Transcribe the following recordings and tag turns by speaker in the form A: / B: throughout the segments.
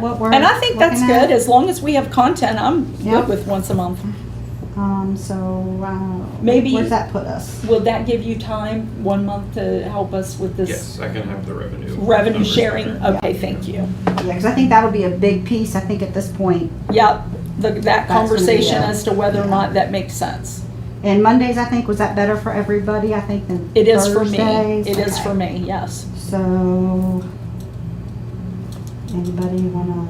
A: what we're.
B: And I think that's
A: looking at.
B: good, as long as we have content, I'm
A: Yep.
B: good with once a month.
A: Um, so, uh.
B: Maybe-
A: Where's that put us?
B: Will that give you time, one month, to help us with
C: Yes,
B: this
C: I can have the revenue.
B: revenue
C: numbers
B: sharing?
C: later.
B: Okay,
A: Yeah.
B: thank you.
A: Yeah, cause I think that'll be a big piece, I think at this point.
B: Yep, the-
A: gonna be
B: that conversation
A: a-
B: as to whether or
A: yeah.
B: not that makes sense.
A: And Mondays, I think, was that better for everybody, I think, than
B: It is for me,
A: Thursdays?
B: it is
A: Okay.
B: for me, yes.
A: So, anybody wanna,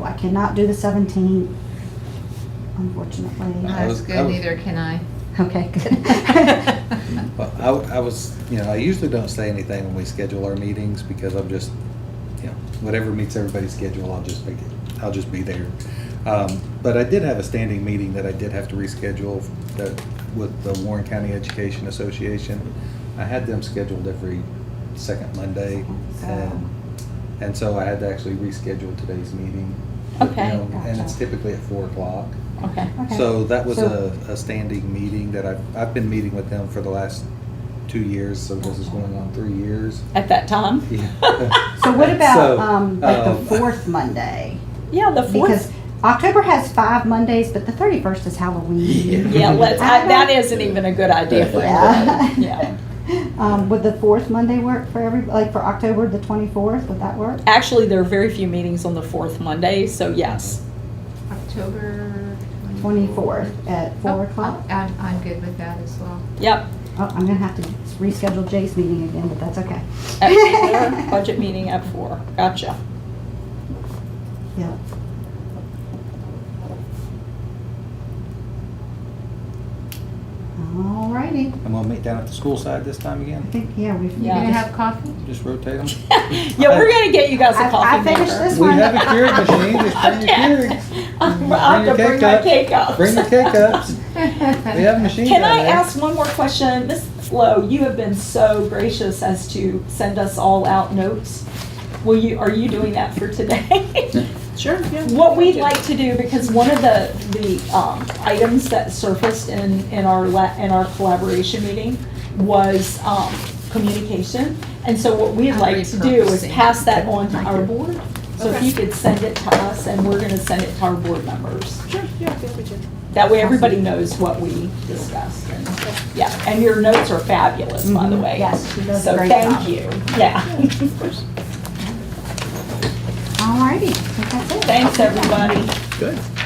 A: oh, I cannot do the seventeenth, unfortunately.
D: Not as
E: was- I
D: good,
E: was-
D: neither can I.
A: Okay, good.
E: Well, I, w- I was, you know, I usually don't say anything when we schedule our meetings because I'm just, you know, whatever meets everybody's schedule, I'll just be, I'll just be there. Um, but I did have a standing meeting that I did have to reschedule that with the Warren County Education Association. I had them scheduled every second Monday. And, and so I had to actually reschedule today's meeting. you
B: Okay.
E: know, And it's
A: Gotcha.
E: typically at four o'clock.
B: Okay,
A: Okay.
E: So that was
A: So-
E: a, a standing meeting that I've, I've been meeting with them for the last two years, so this is going on three years.
B: at that time?
E: Yeah.
A: So what about,
E: So,
A: um, like the
E: um,
A: fourth Monday?
B: Yeah, the
A: Because
B: fourth,
A: October has five Mondays, but the thirty-first is Halloween.
B: yeah, let's, I-
A: I
B: that
A: don't-
B: isn't even a good idea for
A: Yeah.
B: everybody, yeah.
A: Um, would the fourth Monday work for every, like for October the twenty-fourth, would that work?
B: Actually, there are very few meetings on the fourth Monday, so yes.
D: October.
A: Twenty-fourth at
D: Oh,
A: four o'clock?
D: I'm, I'm good with that as well.
B: Yep,
A: Oh, I'm gonna have to reschedule Jay's meeting again, but that's okay.
B: at four, Oh, budget meeting at four, gotcha.
A: Yeah. Alrighty,
E: And we'll meet down at the school side this time
A: I
E: again,
A: think, yeah, we've.
D: You
B: Yeah.
D: gonna have coffee?
E: just rotate them.
B: Yeah, we're gonna get you guys
A: I-
B: a
A: I
B: coffee maker.
A: finished this
E: We
A: one.
E: have a Keurig machine, just bring your Keurigs.
B: I'm, I'm gonna
E: Bring your
B: bring
E: cake
B: my
E: up.
B: cake up.
E: Bring your cake ups, we have a machine down
B: Can I
E: there.
B: ask one more question? Ms. Lowe, you have been so gracious as to send us all out notes. Will you, are you doing that for today?
F: Sure, yeah.
B: What we'd like to do, because one of the, the um, items that surfaced in, in our, la- in our collaboration meeting was um, communication. And so what we'd
D: I'm
B: like to do is
D: repurposing.
B: pass that on to our board. So if
F: Okay.
B: you could send it to us, and we're gonna send it to our board members.
F: Sure, yeah, feel free to.
B: That way, everybody knows what we discussed. and- Yeah, and your notes are fabulous, by the
A: Mhm.
B: way.
A: Yes, she does a
B: So
A: great
B: thank
A: job.
B: you. Yeah.
A: Alrighty, I think that's it.
B: Thanks, everybody.
E: Good.